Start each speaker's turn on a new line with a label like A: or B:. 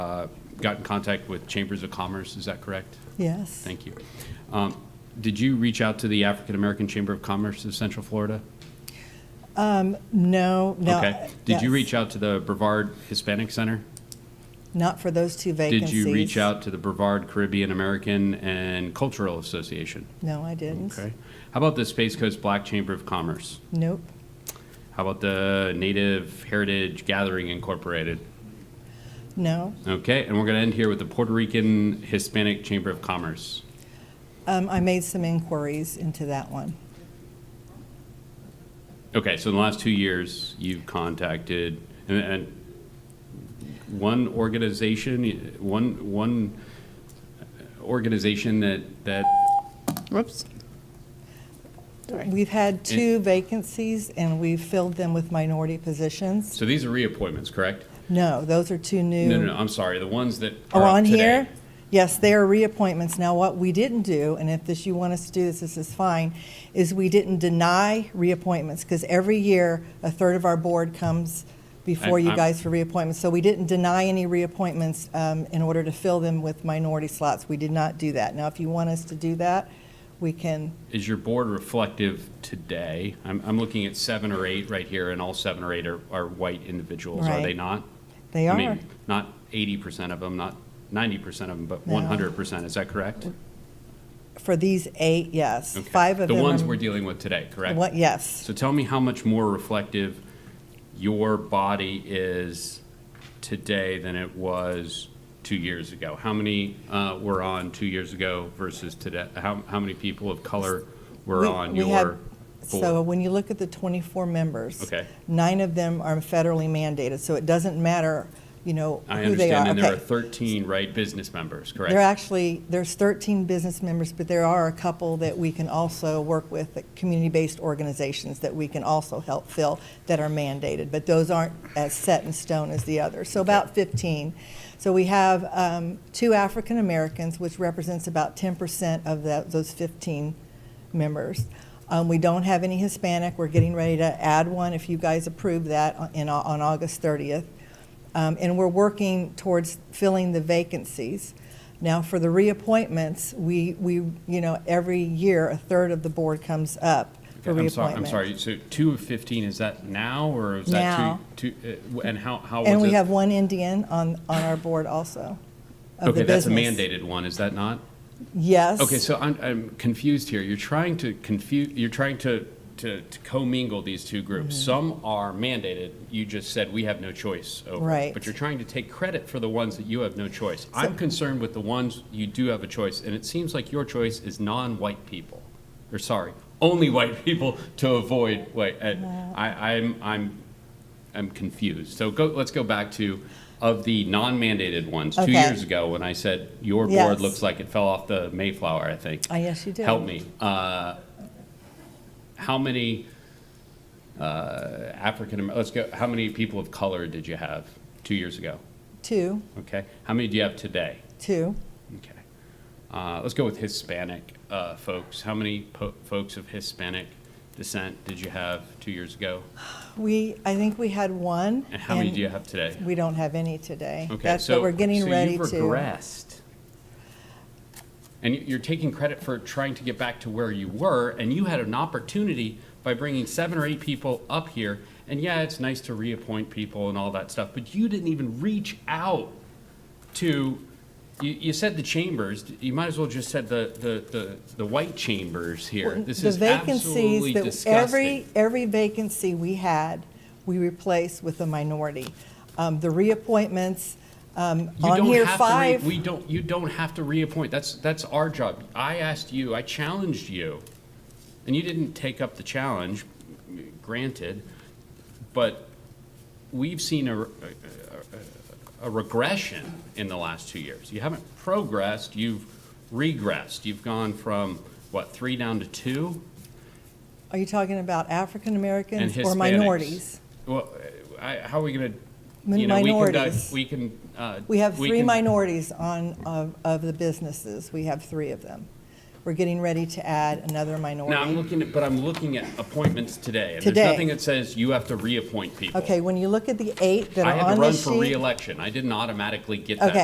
A: uh, got in contact with Chambers of Commerce, is that correct?
B: Yes.
A: Thank you. Um, Did you reach out to the African American Chamber of Commerce of Central Florida?
B: No, no.
A: Okay. Did you
B: yes.
A: reach out to the Brevard Hispanic Center?
B: Not for those two vacancies.
A: Did you reach out to the Brevard Caribbean American and Cultural Association?
B: No, I didn't.
A: Okay. How about the Space Coast Black Chamber of Commerce?
B: Nope.
A: How about the Native Heritage Gathering Incorporated?
B: No.
A: Okay, and we're going to end here with the Puerto Rican Hispanic Chamber of Commerce.
B: Um, I made some inquiries into that one.
A: Okay, so in the last two years, you've contacted, and, and one organization, one, one organization that, that,
C: Whoops. Sorry.
B: We've had two vacancies and we've filled them with minority positions.
A: so these are reappointments, correct?
B: No, those are two new.
A: No, no, no, I'm sorry, the ones that
B: Oh,
A: are up
B: on here?
A: today.
B: Yes, there are reappointments. Now, what we didn't do, and if this, you want us to do this, this is fine, is we didn't deny reappointments, because every year, a third of our board comes before
A: I'm-
B: you
A: I'm-
B: guys for reappointments. So we didn't deny any reappointments um, in order to fill them with minority slots. We did not do that. Now, if you want us to do that, we can,
A: Is your board reflective today? I'm, I'm looking at seven or eight right here, and all seven or eight are, are white individuals, are
B: Right.
A: they not?
B: they
A: I
B: are.
A: mean, not eighty percent of them, not ninety percent of them, but
B: No.
A: one hundred percent, is that correct?
B: For these eight, yes.
A: Okay.
B: Five of them.
A: The ones
B: are-
A: we're dealing with today, correct?
B: What- Yes.
A: So tell me how much more reflective your body is today than it was two years ago. How many uh, were on two years ago versus today? How, how many people of color were
B: We-
A: on
B: we had-
A: your
B: So
A: board?
B: when you look at the 24 members.
A: Okay.
B: Nine of them are federally mandated, so it doesn't matter, you know,
A: I
B: who they are.
A: understand, and there are
B: Okay.
A: thirteen, right, business members, correct?
B: There are actually, there's 13 business members, but there are a couple that we can also work with, that community-based organizations that we can also help fill that are mandated, but those aren't as set in stone as the others. So about 15. So we have um, two African Americans, which represents about 10% of tho- those 15 members. Um, We don't have any Hispanic. We're getting ready to add one if you guys approve that on- in, on August 30th. Um, And we're working towards filling the vacancies. Now, for the reappointments, we, we, you know, every year, a third of the board comes up for
A: I'm sorry,
B: reappointment.
A: I'm sorry, so two of fifteen, is that now, or is that
B: Now.
A: two, two, uh, and how, how was it?
B: And we have one Indian on, on our board also, of
A: Okay,
B: the
A: that's
B: business.
A: a mandated one, is that not?
B: Yes.
A: Okay, so I'm, I'm confused here. You're trying to confuse, you're trying to, to, to commingle these two groups.
B: Mm-hmm.
A: Some are mandated, you just said we have no choice over.
B: Right.
A: But you're trying to take credit for the ones that you have no choice. I'm concerned with the ones you do have a choice, and it seems like your choice is non-white people, or sorry, only white people to avoid white. And I, I'm, I'm, I'm confused. So go, let's go back to, of the non-mandated ones, two
B: Okay.
A: years ago, when I said your board
B: Yes.
A: looks like it fell off the Mayflower, I think.
B: Ah, yes, you did.
A: Help me. Uh, How many uh, African, Amer- let's go, how many people of color did you have two years ago?
B: Two,
A: Okay. How many do you have today?
B: two.
A: Okay. Uh, Let's go with Hispanic uh, folks. How many po- folks of Hispanic descent did you have two years ago?
B: We, I think we had one.
A: And how many do you have today?
B: We don't have any today.
A: Okay,
B: That's
A: so,
B: what we're getting
A: so
B: ready to.
A: you've regressed, and you- you're taking credit for trying to get back to where you were, and you had an opportunity by bringing seven or eight people up here. And yeah, it's nice to reappoint people and all that stuff, but you didn't even reach out to. You, you said the chambers. You might as well just said the the the, the white chambers here. This
B: the
A: is absolutely
B: vacancies that
A: disgusting.
B: every, every vacancy we had, we replaced with a minority. Um, The reappointments, um,
A: You
B: on
A: don't
B: here,
A: have to re-
B: five.
A: We don't, you don't have to reappoint. That's, that's our job. I asked you, I challenged you, and you didn't take up the challenge, granted, but we've seen a, re- a- a regression in the last two years. You haven't progressed, you've regressed. You've gone from, what, three down to two?
B: Are you talking about
A: And
B: African-Americans
A: Hispanics.
B: or minorities?
A: Well, I, how are we gonna,
B: Min-
A: you know, we can, di-
B: minorities.
A: we can, uh.
B: We have three
A: can-
B: minorities on, of, of the businesses. We have three of them. We're getting ready to add another minority.
A: Now, I'm looking at, but I'm looking at appointments today. and
B: Today.
A: There's nothing that says you have to reappoint people.
B: Okay, when you look at the eight that
A: I
B: are
A: had
B: on
A: to run
B: this sheet.
A: for reelection. I didn't automatically get
B: Okay,
A: that